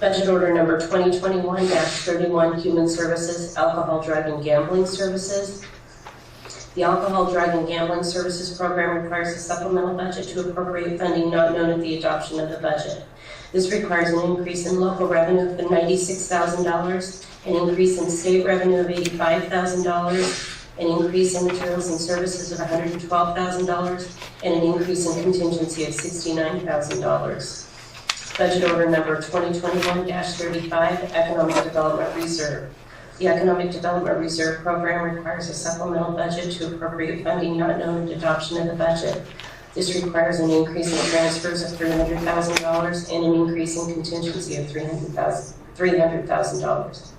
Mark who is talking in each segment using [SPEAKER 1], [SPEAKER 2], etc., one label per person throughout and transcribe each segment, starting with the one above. [SPEAKER 1] Budget order number 2021-31, Human Services, Alcohol, Drug, and Gambling Services. The Alcohol, Drug, and Gambling Services Program requires a supplemental budget to appropriate funding not known at the adoption of the budget. This requires an increase in local revenue of $96,000, an increase in state revenue of $85,000, an increase in materials and services of $112,000, and an increase in contingency of $69,000. Budget order number 2021-35, Economic Development Reserve. The Economic Development Reserve Program requires a supplemental budget to appropriate funding not known at adoption of the budget. This requires an increase in transfers of $300,000 and an increase in contingency of $300,000. $300,000.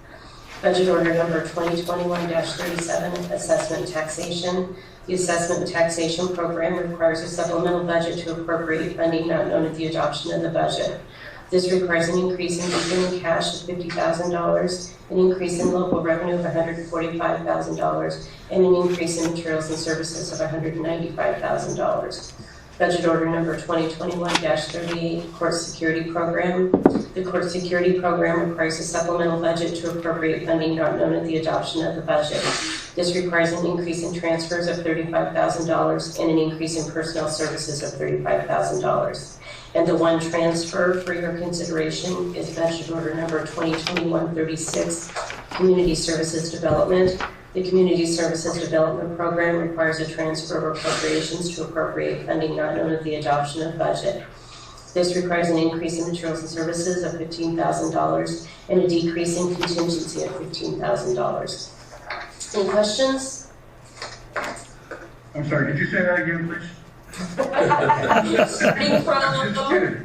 [SPEAKER 1] Budget order number 2021-37, Assessment Taxation. The Assessment Taxation Program requires a supplemental budget to appropriate funding not known at the adoption of the budget. This requires an increase in beginning cash of $50,000, an increase in local revenue of $145,000, and an increase in materials and services of $195,000. Budget order number 2021-38, Court Security Program. The court security program requires a supplemental budget to appropriate funding not known at the adoption of the budget. This requires an increase in transfers of $35,000 and an increase in personnel services of $35,000. And the one transfer for your consideration is budget order number 2021-36, Community Services Development. The Community Services Development Program requires a transfer of appropriations to appropriate funding not known at the adoption of budget. This requires an increase in materials and services of fifteen thousand dollars and a decrease in contingency of fifteen thousand dollars. Any questions?
[SPEAKER 2] I'm sorry, could you say that again, please?
[SPEAKER 1] Starting
[SPEAKER 2] I'm
[SPEAKER 1] from-
[SPEAKER 2] just kidding.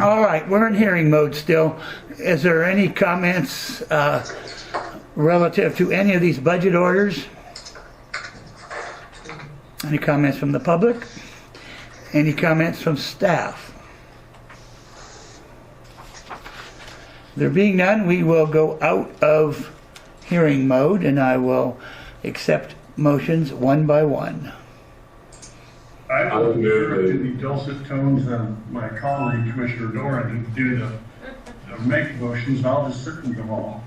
[SPEAKER 3] All right, we're in hearing mode still. Is there any comments uh, relative to any of these budget orders? Any comments from the public? Any comments from staff? There being none, we will go out of hearing mode and I will accept motions one by one.
[SPEAKER 2] I
[SPEAKER 4] I
[SPEAKER 2] will
[SPEAKER 4] would move
[SPEAKER 2] hear in the dulcet tones of my colleague Commissioner Doran to do the, the make motions, I'll just sit with them all.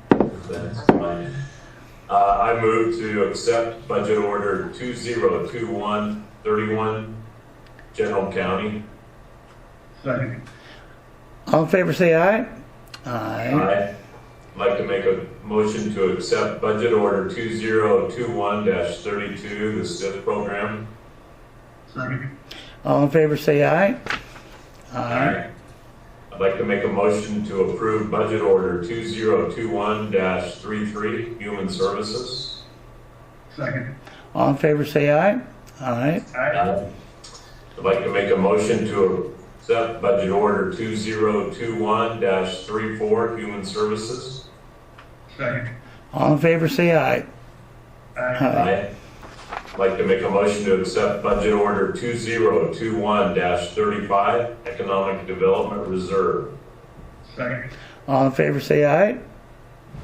[SPEAKER 4] That's fine. Uh, I move to accept budget order 202131, General County.
[SPEAKER 2] Second,
[SPEAKER 3] All in favor, say aye. Aye.
[SPEAKER 4] I'd like to make a motion to accept budget order 2021-32, the SIF program.
[SPEAKER 2] second,
[SPEAKER 3] All in favor, say aye.
[SPEAKER 4] I'd like to make a motion to approve budget order 2021-33, Human Services.
[SPEAKER 2] second.
[SPEAKER 3] All in favor, say aye. Aye.
[SPEAKER 2] I,
[SPEAKER 4] I'd like to make a motion to accept budget order 2021-34, Human Services.
[SPEAKER 2] second,
[SPEAKER 3] All in favor, say aye.
[SPEAKER 2] I,
[SPEAKER 4] I'd like to make a motion to accept budget order 2021-35, Economic Development Reserve.
[SPEAKER 2] second,
[SPEAKER 3] All in favor, say aye.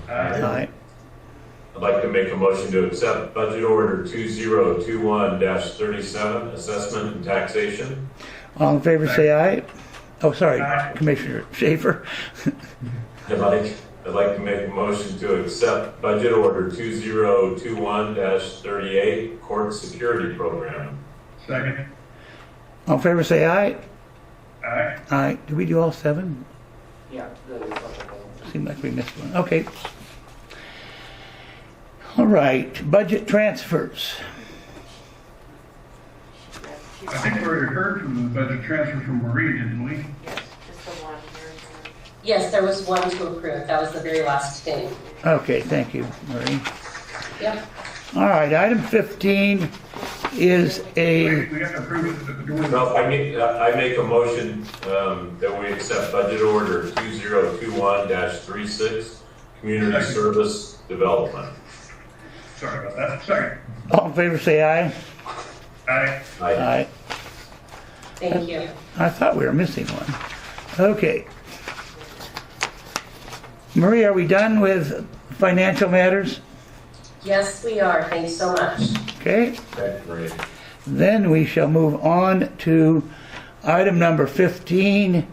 [SPEAKER 2] I,
[SPEAKER 3] Aye.
[SPEAKER 4] I'd like to make a motion to accept budget order 2021-37, Assessment and Taxation.
[SPEAKER 3] All in favor, say aye. Oh, sorry,
[SPEAKER 2] Aye.
[SPEAKER 3] Commissioner Schaefer.
[SPEAKER 4] I'd like, I'd like to make a motion to accept budget order 2021-38, court security program.
[SPEAKER 2] second,
[SPEAKER 3] All in favor, say aye.
[SPEAKER 2] I.
[SPEAKER 3] Aye. Did we do all seven?
[SPEAKER 5] Yeah, the supplemental.
[SPEAKER 3] Seemed like we missed one. Okay. All right, budget transfers.
[SPEAKER 2] I think we already heard from the budget transfer from Marie, didn't we?
[SPEAKER 6] Yes, just the one here.
[SPEAKER 1] Yes, there was one to approve. That was the very last thing.
[SPEAKER 3] Okay, thank you, Marie.
[SPEAKER 1] Yep.
[SPEAKER 3] All right, item 15 is a,
[SPEAKER 2] We have to approve it at the door.
[SPEAKER 4] No, I make, uh, I make a motion um, that we accept budget order 2021-36, community service development.
[SPEAKER 2] Sorry about that, second,
[SPEAKER 3] all in favor, say aye.
[SPEAKER 2] I,
[SPEAKER 4] I,
[SPEAKER 3] Aye.
[SPEAKER 1] Thank you.
[SPEAKER 3] I thought we were missing one. Okay. Marie, are we done with financial matters?
[SPEAKER 1] Yes, we are. Thanks so much.
[SPEAKER 3] Okay,
[SPEAKER 4] that's great.
[SPEAKER 3] then we shall move on to item number 15,